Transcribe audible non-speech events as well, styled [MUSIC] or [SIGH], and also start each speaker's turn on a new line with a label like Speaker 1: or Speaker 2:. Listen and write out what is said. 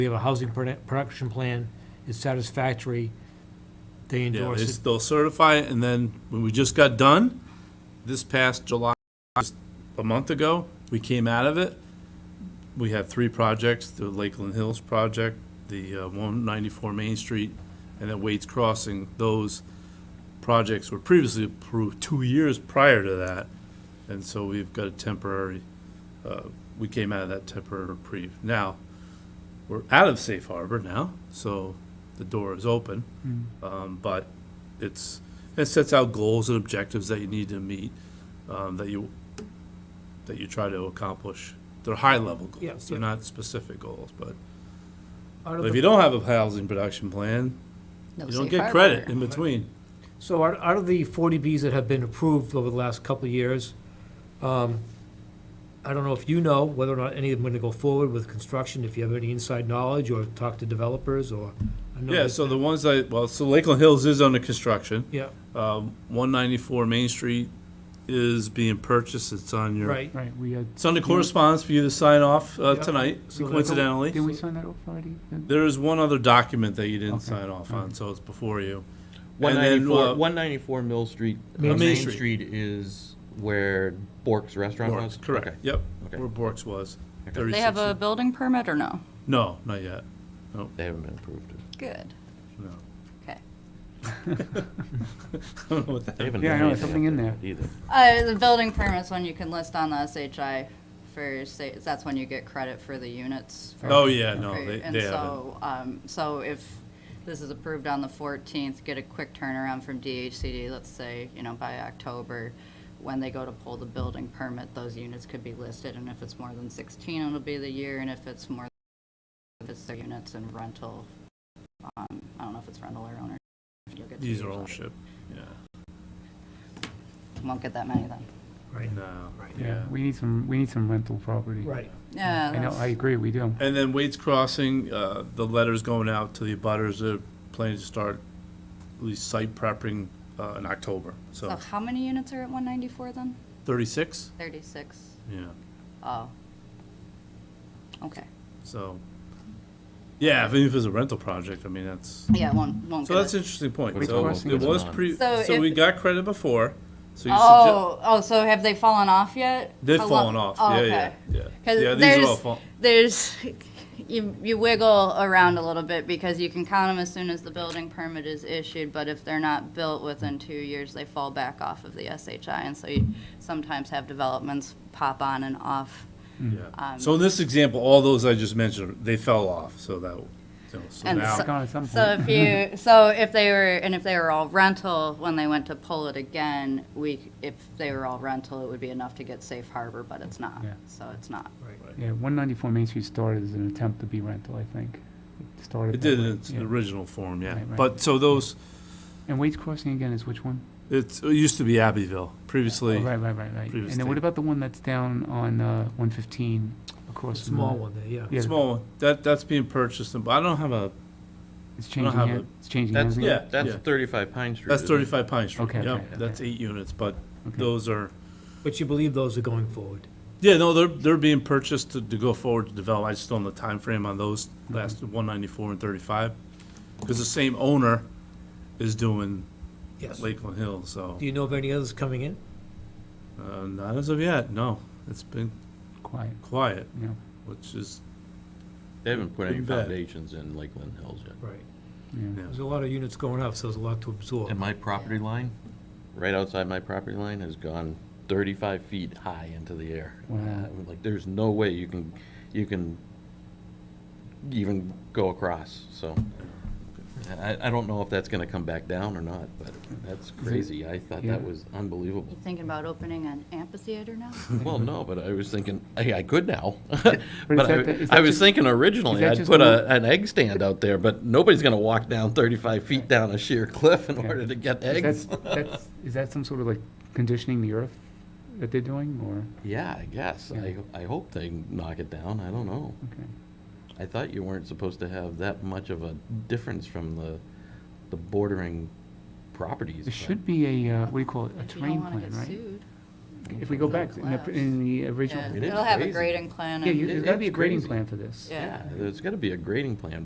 Speaker 1: We have a housing produ- production plan, it's satisfactory, they
Speaker 2: Yeah, they,
Speaker 1: endorse it.
Speaker 2: they'll certify it, and then when we just got done, this past July, just a month ago, we came out of it. We had three projects, the Lakeland Hills project, the uh, 194 Main Street, and then Wade's Crossing. Those projects were previously approved two years prior to that, and so we've got a temporary, uh, we came out of that temporary reprieve. Now, we're out of safe harbor now, so the door is open.
Speaker 1: Hmm.
Speaker 2: Um, but it's, it sets out goals and objectives that you need to meet, um, that you, that you try to accomplish. They're high-level
Speaker 1: Yeah,
Speaker 2: goals, they're
Speaker 1: yeah.
Speaker 2: not specific goals, but
Speaker 1: Out
Speaker 2: but
Speaker 1: of
Speaker 2: if
Speaker 1: the-
Speaker 2: you don't have a housing production plan, you don't get credit in between.
Speaker 1: So out out of the 40Bs that have been approved over the last couple of years, um, I don't know if you know whether or not any of them are going to go forward with construction, if you have any inside knowledge, or talk to developers, or. I know
Speaker 2: Yeah,
Speaker 1: that-
Speaker 2: so the ones that, well, so Lakeland Hills is under construction.
Speaker 1: Yeah,
Speaker 2: Um, one ninety-four Main Street is being purchased, it's on your.
Speaker 1: right.
Speaker 3: Right, we had,
Speaker 2: It's under correspondence for you to sign off, uh,
Speaker 1: Yeah.
Speaker 2: tonight,
Speaker 1: So that's-
Speaker 2: coincidentally.
Speaker 3: did we sign that off already?
Speaker 2: There is one other document that you didn't
Speaker 3: Okay.
Speaker 2: sign off on, so it's before you.
Speaker 4: One
Speaker 2: And then,
Speaker 4: ninety-four,
Speaker 2: uh,
Speaker 4: one ninety-four Mill Street. uh,
Speaker 1: Main
Speaker 4: Main
Speaker 2: Street.
Speaker 4: Street is where Bork's Restaurant was?
Speaker 2: Bork's, correct,
Speaker 4: Okay.
Speaker 2: yep,
Speaker 4: Okay.
Speaker 2: where Bork's was.
Speaker 4: Okay.
Speaker 2: Thirty-
Speaker 5: They have a building permit or no?
Speaker 2: No, not yet, [LAUGHS]
Speaker 4: They haven't been approved.
Speaker 5: Good.
Speaker 2: no.
Speaker 5: Okay.
Speaker 2: I don't know what that
Speaker 4: They haven't
Speaker 3: Yeah, I
Speaker 4: done
Speaker 3: know,
Speaker 4: anything
Speaker 3: something
Speaker 4: up
Speaker 3: in
Speaker 4: there yet Either.
Speaker 5: Uh, the building permit's when you can list on the SHI for, say, that's when you get credit for the units. for-
Speaker 2: Oh, yeah, no,
Speaker 5: for-
Speaker 2: they-
Speaker 5: And
Speaker 2: they
Speaker 5: so, um, so if this is approved on the fourteenth, get a quick turnaround from DHCD, let's say, you know, by October. When they go to pull the building permit, those units could be listed, and if it's more than sixteen, it'll be the year, and if it's more, if it's their units and rental, um, I don't know if it's rental or owner. you'll get two
Speaker 2: These are
Speaker 5: years out of it.
Speaker 2: ownership, yeah,
Speaker 5: Won't get that many then.
Speaker 2: no,
Speaker 1: Right.
Speaker 2: yeah.
Speaker 3: Yeah, we need some, we need some rental property.
Speaker 1: Right.
Speaker 5: Yeah.
Speaker 3: I know,
Speaker 5: that's-
Speaker 3: I agree, we do.
Speaker 2: And then Wade's Crossing, uh, the letter's going out to the abutters, they're planning to start at least site prepping, uh, in October,
Speaker 5: So
Speaker 2: so
Speaker 5: how many units are at one ninety-four then?
Speaker 2: thirty-six,
Speaker 5: Thirty-six?
Speaker 2: yeah,
Speaker 5: Oh. Okay.
Speaker 2: so. Yeah, if if it's a rental project, I mean, that's.
Speaker 5: Yeah, it won't, won't
Speaker 2: So
Speaker 5: get
Speaker 2: that's
Speaker 5: it.
Speaker 2: an interesting point.
Speaker 4: Which
Speaker 2: So
Speaker 3: crossing
Speaker 2: it
Speaker 3: is
Speaker 2: was
Speaker 4: on?
Speaker 2: pre,
Speaker 5: So
Speaker 2: so we
Speaker 5: if-
Speaker 2: got credit before, so you suggest,
Speaker 5: Oh, oh, so have they fallen off yet?
Speaker 2: they've
Speaker 5: How
Speaker 2: fallen
Speaker 5: long-
Speaker 2: off,
Speaker 5: oh,
Speaker 2: yeah,
Speaker 5: okay.
Speaker 2: yeah, yeah.
Speaker 5: 'Cause
Speaker 2: Yeah, these
Speaker 5: there's-
Speaker 2: are all fall,
Speaker 5: There's, [LAUGHS] you, you wiggle around a little bit because you can count them as soon as the building permit is issued, but if they're not built within two years, they fall back off of the SHI, and so you sometimes have developments pop on and off.
Speaker 3: Mm.
Speaker 2: yeah.
Speaker 5: um,
Speaker 2: So in this example, all those I just mentioned, they fell off, so that, you know, so
Speaker 5: And
Speaker 2: now,
Speaker 5: so-
Speaker 3: Gone at some
Speaker 5: So
Speaker 3: point.
Speaker 5: if
Speaker 3: [LAUGHS]
Speaker 5: you, so if they were, and if they were all rental, when they went to pull it again, we, if they were all rental, it would be enough to get safe harbor, but it's not.
Speaker 3: Yeah.
Speaker 5: So it's not.
Speaker 3: Yeah, one ninety-four Main Street started as an attempt to be rental, I think. It started.
Speaker 2: it
Speaker 3: that
Speaker 2: did
Speaker 3: way,
Speaker 2: in its
Speaker 3: yeah.
Speaker 2: original form, yeah.
Speaker 3: Right, right.
Speaker 2: But, so those,
Speaker 3: And Wade's Crossing again is which one?
Speaker 2: it's, it used to be Abbeville,
Speaker 3: Oh,
Speaker 2: previously.
Speaker 3: Right, right, right, right. And
Speaker 2: previous
Speaker 3: then what
Speaker 2: thing.
Speaker 3: about the one that's down on, uh, one fifteen
Speaker 1: The
Speaker 3: across from?
Speaker 1: Small
Speaker 3: the-
Speaker 1: one there, yeah.
Speaker 3: Yeah,
Speaker 2: Small, one. that, that's being purchased, and- but I don't have a,
Speaker 3: It's
Speaker 2: I don't
Speaker 3: changing
Speaker 2: have
Speaker 3: hands, it's changing hands
Speaker 4: That's,
Speaker 3: again?
Speaker 2: Yeah,
Speaker 4: that's
Speaker 2: yeah.
Speaker 4: thirty-five Pine Street.
Speaker 2: that's
Speaker 4: isn't it?
Speaker 2: thirty-five Pine Street,
Speaker 3: Okay, okay,
Speaker 2: yeah,
Speaker 3: okay.
Speaker 2: that's eight units, but
Speaker 3: Okay.
Speaker 2: those are,
Speaker 1: But you believe those are going forward?
Speaker 2: Yeah, no, they're, they're being purchased to, to go forward to develop. I just don't know the timeframe on those last one ninety-four and thirty-five. Because the same owner is doing
Speaker 1: Yes. Do
Speaker 2: Lakeland Hills, so,
Speaker 1: you know of any others coming in?
Speaker 2: uh, not as of yet, no. It's been
Speaker 3: Quiet,
Speaker 2: quiet,
Speaker 3: yeah.
Speaker 2: which is,
Speaker 4: They haven't put any
Speaker 2: Pretty bad.
Speaker 4: foundations in Lakeland Hills yet.
Speaker 1: Right.
Speaker 3: Yeah.
Speaker 2: yeah.
Speaker 1: There's a lot of units going up, so there's a lot to absorb.
Speaker 4: And my property line, right outside my property line, has gone thirty-five feet high into the air.
Speaker 3: Wow.
Speaker 4: Uh, Like, there's no way you can, you can even go across, so. I, I don't know if that's gonna come back down or not, but that's crazy. I thought
Speaker 3: Yeah.
Speaker 4: that was unbelievable.
Speaker 3: [LAUGHS]
Speaker 5: You thinking about opening an amphitheater now?
Speaker 4: Well, no, but I was thinking, I, I could now. [LAUGHS]
Speaker 3: is
Speaker 4: But
Speaker 3: that the- is
Speaker 4: I, I
Speaker 3: that
Speaker 4: was
Speaker 3: just-
Speaker 4: thinking
Speaker 3: is
Speaker 4: originally,
Speaker 3: that
Speaker 4: I'd
Speaker 3: just
Speaker 4: put
Speaker 3: the-
Speaker 4: a, an egg stand out there, but nobody's gonna walk down thirty-five feet down a sheer cliff in
Speaker 3: Yeah.
Speaker 4: order to get
Speaker 3: Is
Speaker 4: eggs.
Speaker 3: that, that's, is that some sort of like conditioning the earth that they're doing, or,
Speaker 4: Yeah, I guess. I, I hope they knock it down. I don't know.
Speaker 3: okay.
Speaker 4: I thought you weren't supposed to have that much of a difference from the, the bordering
Speaker 3: There
Speaker 4: properties. but-
Speaker 3: should be a, uh, what do you call it, a
Speaker 5: If you
Speaker 3: terrain
Speaker 5: don't want to
Speaker 3: plan,
Speaker 5: get
Speaker 3: right?
Speaker 5: sued.
Speaker 3: if we go back in the, in the original,
Speaker 5: Yeah,
Speaker 4: It is
Speaker 5: it'll have a
Speaker 4: crazy.
Speaker 5: grading plan.
Speaker 3: yeah,
Speaker 5: and-
Speaker 3: you- there's gotta be a
Speaker 4: It's
Speaker 3: grading
Speaker 4: crazy.
Speaker 3: plan for this.
Speaker 5: Yeah.
Speaker 4: There's gotta be a grading plan